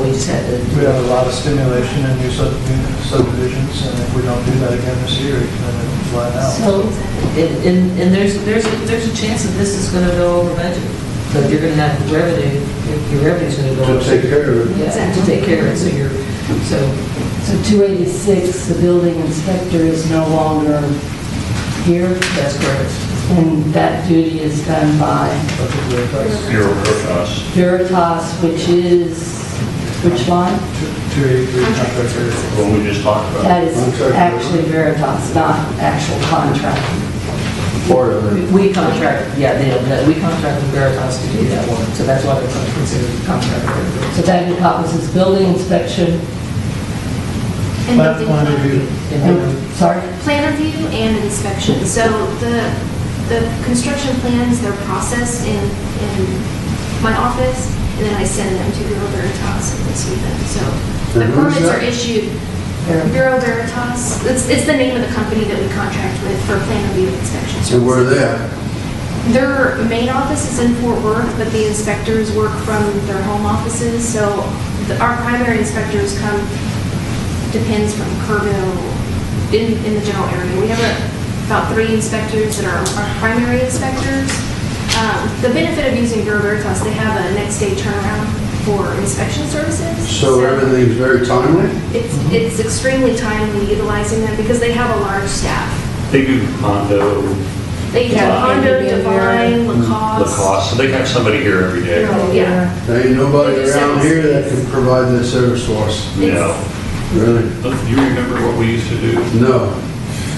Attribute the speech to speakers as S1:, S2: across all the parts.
S1: we just had to.
S2: We have a lot of stimulation and new subdivi- subdivisions, and if we don't do that again this year, then it'll flat out.
S1: So, and, and- and there's, there's, there's a chance that this is going to go over budget, but you're going to have revenue, your- your revenue's going to go.
S3: to
S1: over.
S3: take care of it.
S1: Yeah, to take care of it, so you're, so,
S4: So 286, the building inspector is no longer here,
S1: that's correct.
S4: and that duty is done by
S2: That's what we're addressing.
S5: Bureau of Veritas.
S4: Veritas, which is, which line?
S2: Two- 283 contract here.
S5: what we just talked about.
S4: That is actually Veritas, not actual contract.
S3: Part of it.
S1: We contract, yeah, they don't, know. we contract with Veritas to do that one, so that's why they're considered contract.
S4: So that encompasses building inspection,
S6: And
S2: Plat
S6: building
S2: plan review.
S4: and- sorry?
S6: Plan review and inspection. So the, the construction plans, they're processed in, in my office, and then I send them to Bureau Veritas and they see them. So the
S3: And who's
S6: permits
S3: that?
S6: are issued, Bureau Veritas, it's, it's the name of the company that we contract with for plan review and inspection.
S3: So where
S6: services.
S3: they at?
S6: Their main office is in Fort Worth, but the inspectors work from their home offices, so the- our primary inspectors come, depends from Kerrville, in, in the general area. We have uh, about three inspectors that are our primary inspectors. Um, The benefit of using Bureau Veritas, they have a next-day turnaround for inspection services.
S3: So everything's very timely?
S6: It's, it's extremely timely utilizing them because they have a large staff.
S5: They do Mondo,
S6: They have
S5: Wow.
S6: Hondo, Divine,
S5: Mm-hmm. Lacoste, so they have somebody here every day.
S6: Yeah.
S3: There ain't nobody around here that can provide that service for us,
S6: It's-
S5: No.
S3: really.
S5: Do you remember what we used to do?
S3: No.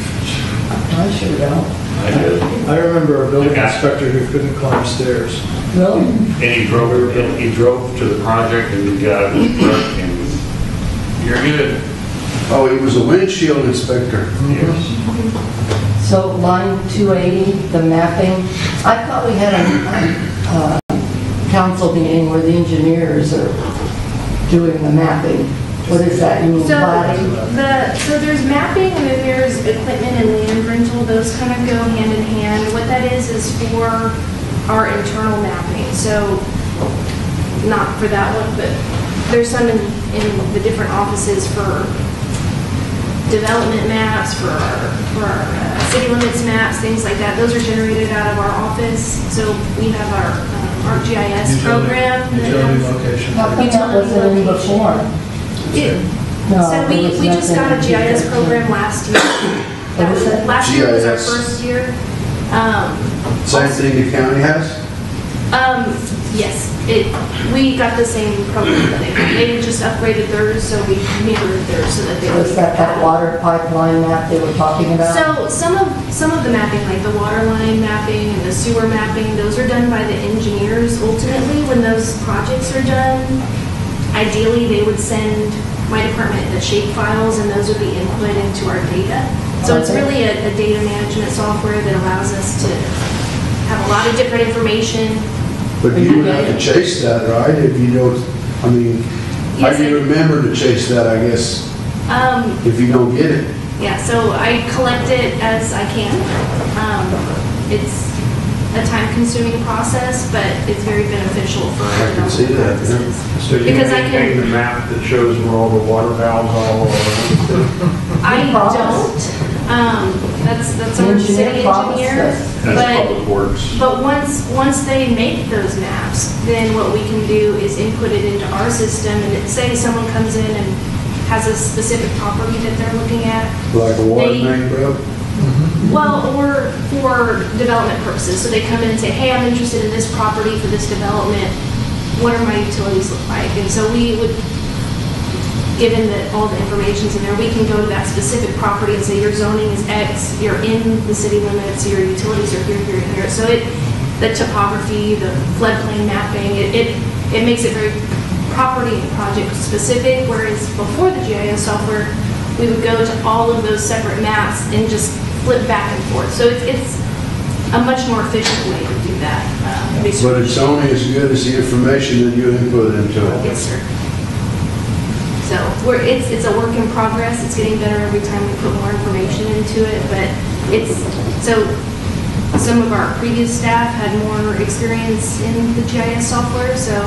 S4: I sure don't.
S5: I did.
S2: I remember a building inspector who couldn't climb stairs.
S4: Really?
S5: And he drove, and he drove to the project and got out of his truck and, you're good.
S3: Oh, he was a windshield inspector.
S5: Yes.
S4: So line 280, the mapping, I thought we had a uh, council meeting where the engineers are doing the mapping. What is that, you mean
S6: So
S4: plating?
S6: the, so there's mapping and then there's equipment and land rental, those kind of go hand in hand. What that is, is for our internal mapping, so not for that one, but there's some in, in the different offices for development maps, for our, for our uh, city limits maps, things like that. Those are generated out of our office, so we have our, um, our GIS
S2: Utility-
S6: program. that
S2: Utility
S6: has-
S2: location.
S4: How come that wasn't in before?
S6: It-
S4: No,
S6: So
S4: there
S6: we,
S4: was
S6: we just got a
S4: nothing.
S6: GIS program last year. That was-
S4: What is it?
S6: Last year was our
S3: GIS.
S6: first year. Um,
S3: Same thing the county has?
S6: um, yes, it, we got the same program that they got. They just upgraded theirs, so we mirrored theirs so that they.
S4: Was that that water pipeline map they were talking about?
S6: So some of, some of the mapping, like the water line mapping and the sewer mapping, those are done by the engineers ultimately. When those projects are done, ideally, they would send my department the shape files and those would be input into our data. So it's
S4: Okay.
S6: really a, a data management software that allows us to have a lot of different information.
S3: But you would have to chase that, right? If you don't, I mean, how
S6: Yes,
S3: do you
S6: I-
S3: remember to chase that, I guess,
S6: Um,
S3: if you don't get it?
S6: Yeah, so I collect it as I can. Um, It's a time-consuming process, but it's very beneficial for
S3: I can
S6: development
S3: see that, yeah.
S6: purposes.
S7: So you
S6: Because I
S7: maintain the
S6: can,
S7: map that shows where all the water valves all are?
S6: I
S4: Promise.
S6: don't. Um, That's, that's
S4: The
S6: our
S4: engineer
S6: city
S4: promised
S6: engineer.
S4: us.
S5: That's
S6: But,
S5: Public Works.
S6: but once, once they make those maps, then what we can do is input it into our system. And it- say someone comes in and has a specific property that they're looking at,
S3: Like a water
S6: They-
S3: main broke?
S6: Well, or for development purposes, so they come in and say, hey, I'm interested in this property for this development, what are my utilities look like? And so we would, given that all the information's in there, we can go to that specific property and say, your zoning is X, you're in the city limits, your utilities are here, here, and here. So it, the topography, the floodplain mapping, it, it it makes it very property and project specific, whereas before the GIS software, we would go to all of those separate maps and just flip back and forth. So it's, it's a much more efficient way to do that. uh,
S3: But
S6: research.
S3: it's only as good as the information that you input into it.
S6: Yes, sir. So we're, it's, it's a work in progress. It's getting better every time we put more information into it, but it's, so some of our previous staff had more experience in the GIS software, so